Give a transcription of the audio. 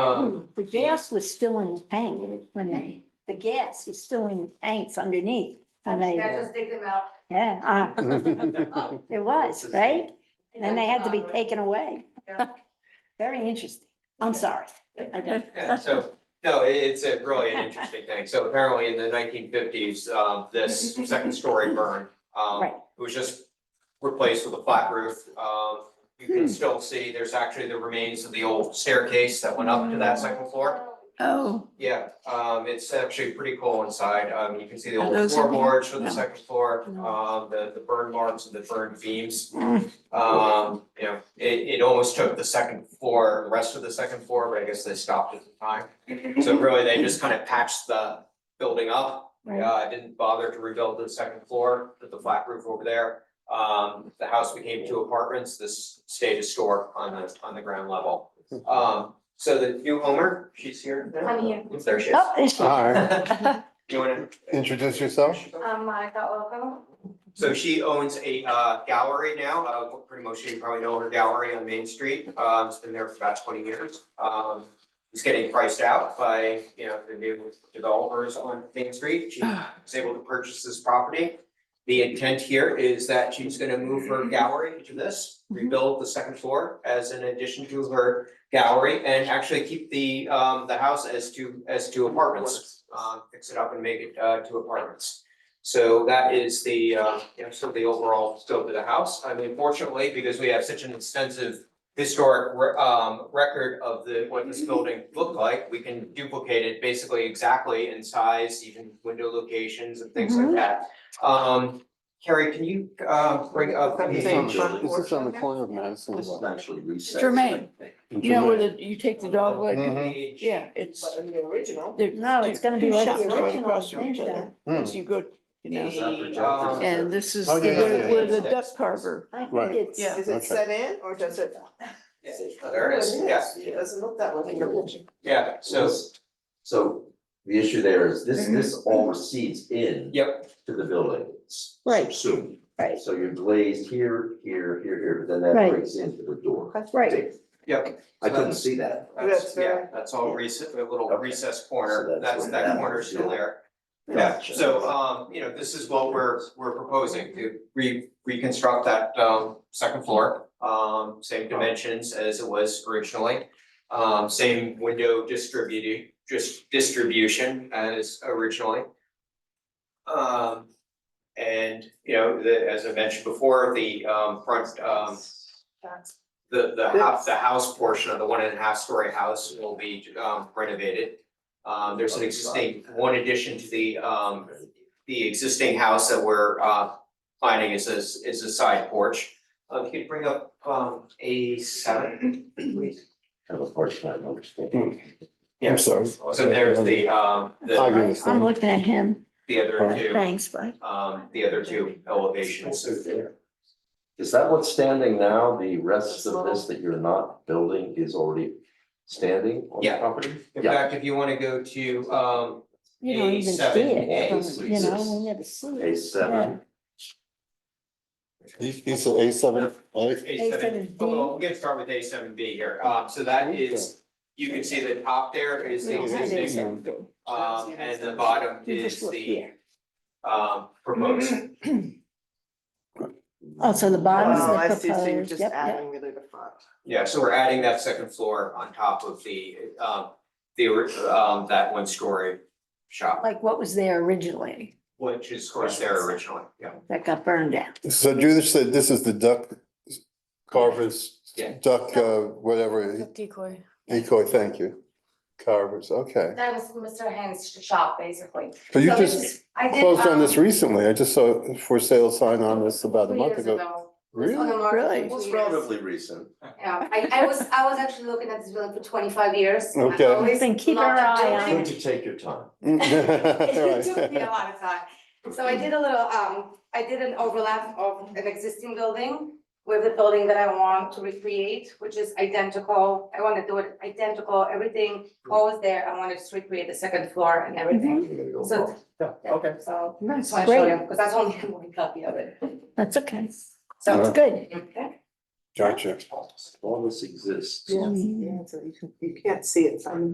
Um, true. The gas was still in the tank when they, the gas is still in the tanks underneath. And I they, just dig them out. yeah, uh, Oh, it was, right? it And then they had to be doesn't bother me. taken away. Yeah. Very interesting. I'm sorry. I don't- Yeah, so, no, it, it's a really an interesting thing. So apparently in the nineteen fifties, uh, this second story burned. Um, Right. it was just replaced with a flat roof. Um, you can still see, there's actually the remains of the old staircase that went up to that Hmm. second floor. Oh, Yeah, um, it's actually pretty cool inside. Um, you can see the Are old those in here? floorboards for No. the second floor, No. um, the, the burn marks and the burn beams. Mm. Um, you know, it, it almost took the second floor, the rest of the second floor, but I guess they stopped at the time. So really, they just kind of patched the building up. Right. Uh, didn't bother to rebuild the second floor, put the flat roof over there. Um, the house became two apartments, this stayed a store on the, on the ground level. Um, so the new Homer, she's here now? I'm here. There she Oh, is. it's, Hi, You wanna? introduce yourself. Um, I got welcome. So she owns a uh gallery now, uh pretty much you probably know her gallery on Main Street, um it's been there for about twenty years. Um it's getting priced out by, you know, the new developers on Main Street, she was able to purchase this property. The intent here is that she's gonna move her gallery to this, rebuild the second floor as an addition to her gallery and actually keep the um the house as two as two apartments. Um fix it up and make it uh two apartments. So that is the, uh, you know, sort of the overall scope of the house. I mean, fortunately, because we have such an extensive historic, re- um, record of the, what this building looked like, we can duplicate it basically exactly in size, even window locations and things like that. Um, Carrie, can you, uh, bring up? the- Is this on the- is this on the Porch. corner of Madison? and Washington? Jermaine, you know where the, you take the dogwood? um, Mhm. Yeah, it's. in the original. there- no, it's gonna be two like. shops right across from each other. I As you go, you know, Um, and this is Oh, the- yeah, yeah, yeah, where the yeah. duck carver. think it's, Yeah. Is it Okay. set in or does it? There it is, yeah, It doesn't look that way. yeah, so, So the issue there is this, Mhm. this all recedes in yep, to the building. Right. Soon. Right. So you're glazed here, here, here, here, but then Right. that breaks into the door. right. yep. I couldn't see that. That's, That's yeah, very- that's all recess, a little Okay. recess So corner, that's that's, what that that corner's is, still yeah. there. Yeah, so, um, you know, this is what we're, we're proposing to re- reconstruct that, um, second floor. Um, same dimensions as it was originally, um, same window distributed, just distribution as originally. Um, and, you know, the, as I mentioned before, the, um, front, um, the, the house, the house portion of the one and a half story house will be, um, renovated. Um, there's an existing, one addition to the, um, the existing house that we're, uh, planning is a, is a side porch. Uh, if you could bring up, um, A seven, please. Kind of a hard time understanding. Yeah. I'm sorry. So there's the, um, I the, I'm understand. looking at him. the other two, Thanks, bud. um, the other two elevations. Is that what's standing now? The rest of this that you're not building is already standing on the Yeah. property? In fact, if you wanna go to, um, You don't even see A7A, it, from- so you it's- know, we never see A it. seven, These these are A seven, right? A seven, A7B. well, we'll get started with A seven B here. Uh, so that is, you can see the top there is the No, that existing isn't. Um, and the bottom You just is look the, here. Mm-hmm. um, proposed. Oh, so the bottom Oh, I is the see, so you're proposed, just yep, yep. adding really the front. Yeah, so we're adding that second floor on top of the, um, the, ori- um, that one story shop, like what was there originally which is of course there originally, yeah. that got burned down. So Judith said this is the duck carvers, Yeah. duck, uh, whatever, Decoy. decoy, thank you. uh, Carvers, okay. That was Mr. Hand's shop, basically. But you So this just is- I did, closed on um, this recently. I just saw a for sale sign on this about a three month years ago. ago. It's on Really? the market for Really? two it's years. relatively recent. Yeah, I, I was, I was actually looking at this building for twenty-five years. I've Okay. always Then keep loved our that eye building. on Don't you take your time? It took me a Right. lot of time. So I did a little, um, I did an overlap of an existing building with the building that I want to recreate, which is identical. I want to do it identical, everything always there. I wanted to recreate the second floor and everything. You're gonna go So- wrong. Okay. So That's that's why I showed you, great. because that's only one copy of it. That's okay. So, That's good. okay. Gotcha. All this exists. Mm. Yeah, so you can, you can't see it from